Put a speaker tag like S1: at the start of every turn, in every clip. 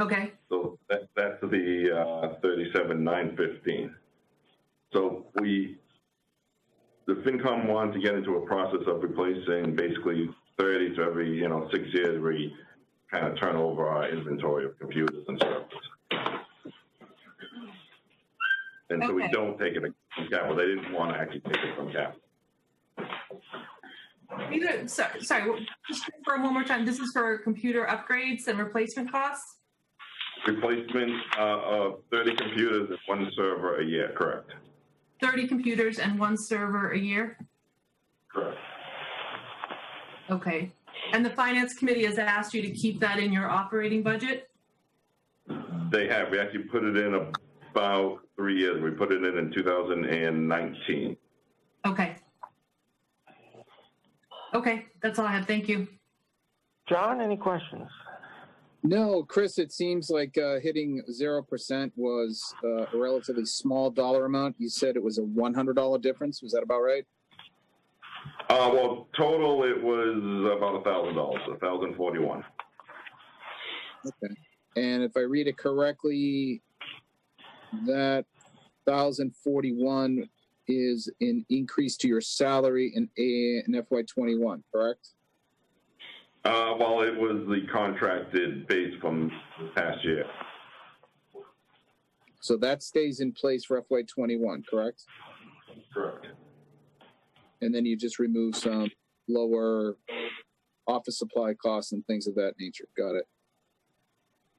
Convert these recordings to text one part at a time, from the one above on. S1: Okay,
S2: So that, that's the, uh, thirty-seven, nine fifteen. So we, the FinCom wanted to get into a process of replacing basically thirty to every, you know, six years, we kind of turn over our inventory of computers and servers. And so we
S1: Okay.
S2: don't take it from capital, they didn't want to actually take it from capital.
S1: These are- so- sorry, well, just confirm one more time, this is for computer upgrades and replacement costs?
S2: Replacement, uh, of thirty computers and one server a year, correct?
S1: Thirty computers and one server a year?
S2: Correct.
S1: Okay, and the finance committee has asked you to keep that in your operating budget?
S2: They have. We actually put it in about three years. We put it in in 2019.
S1: Okay. Okay, that's all I have, thank you.
S3: John, any questions?
S4: No, Chris, it seems like uh, hitting 0% was uh, a relatively small dollar amount. You said it was a $100 difference. Was that about right?
S2: Uh, well, total it was about a thousand dollars, a thousand forty-one.
S4: Okay. And if I read it correctly, that 1041 is an increase to your salary in, A- in FY21, correct?
S2: Uh, well, it was the contracted base from past year.
S4: So that stays in place for FY21, correct?
S2: Correct.
S4: And then you just remove some lower office supply costs and things of that nature. Got it.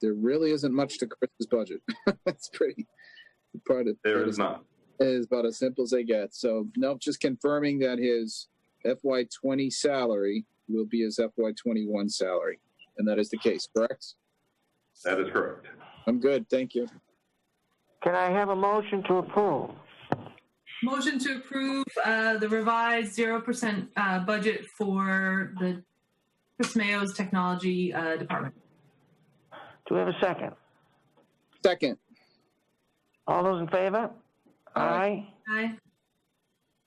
S4: There really isn't much to Chris's budget. That's pretty part of
S2: There is not.
S4: is about as simple as they get. So nope, just confirming that his FY twenty salary will be his FY twenty one salary. And that is the case, correct?
S2: That is correct.
S4: I'm good, thank you.
S3: Can I have a motion to approve?
S1: Motion to approve uh, the revised 0% uh, budget for the Chris Mayo's Technology uh, Department.
S3: Do we have a second?
S4: Second,
S3: All those in favor? Aye.
S4: Aye.
S1: Aye.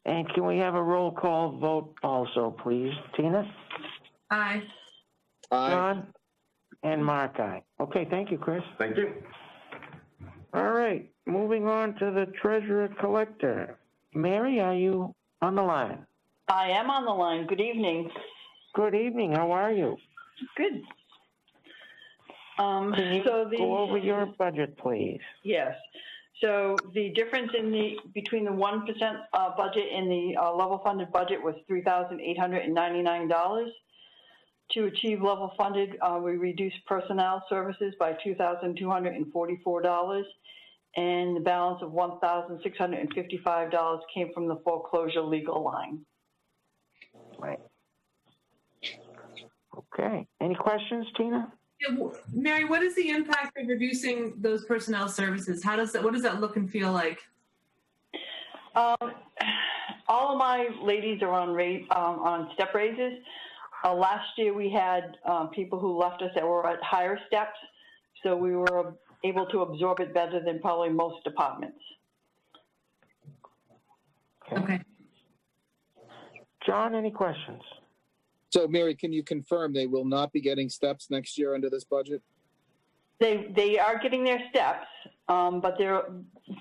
S3: And can we have a roll call vote also, please? Tina?
S1: Aye.
S4: aye.
S3: John? And Mark, aye. Okay, thank you, Chris.
S2: Thank you.
S3: All right, moving on to the treasurer collector. Mary, are you on the line?
S5: I am on the line. Good evening.
S3: Good evening, how are you?
S5: Good. Um,
S3: Can you
S5: so the
S3: Go over your budget, please.
S5: yes. So the difference in the between the one percent uh, budget and the uh, level funded budget was three thousand eight hundred and ninety nine dollars. To achieve level funded, uh, we reduced personnel services by two thousand two hundred and forty four dollars, and the balance of one thousand six hundred and fifty five dollars came from the foreclosure legal line.
S3: Right. Okay, any questions, Tina?
S1: Yeah, w- Mary, what is the impact of reducing those personnel services? How does that, what does that look and feel like?
S5: Um, all of my ladies are on rate, um, on step raises. Uh, last year we had, um, people who left us that were at higher steps, so we were able to absorb it better than probably most departments.
S1: Okay.
S3: John, any questions?
S4: So Mary, can you confirm they will not be getting steps next year under this budget?
S5: They, they are getting their steps, um, but they're,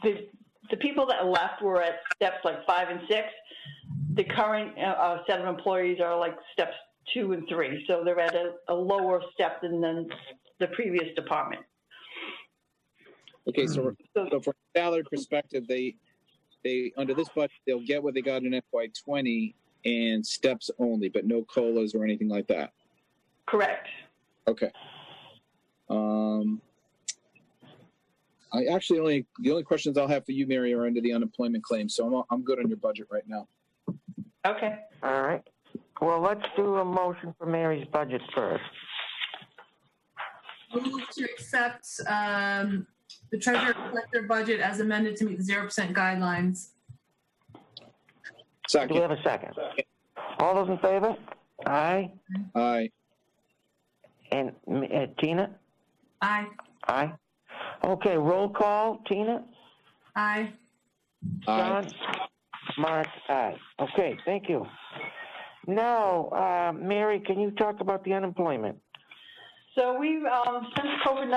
S5: the, the people that left were at steps like five and six. The current, uh, uh, set of employees are like steps two and three, so they're at a, a lower step than, than the previous department.
S4: Okay, so,
S5: So-
S4: so from a salary perspective, they, they, under this budget, they'll get what they got in FY twenty and steps only, but no colas or anything like that.
S5: Correct.
S4: Okay. Um, I actually only, the only questions I'll have for you, Mary, are under the unemployment claim, so I'm, I'm good on your budget right now.
S5: Okay.
S3: All right, well, let's do a motion for Mary's budget first.
S1: Move to accept um, the treasurer collector budget as amended to meet the 0% guidelines.
S3: Do we
S4: Second,
S3: have a second? All those in favor? Aye.
S4: aye,
S3: And uh, Tina?
S1: Aye.
S3: Aye. Okay, roll call. Tina?
S1: Aye.
S4: aye.
S3: John? Mark? Aye. Okay, thank you. Now, uh, Mary, can you talk about the unemployment?
S5: So we've, um, since COVID-19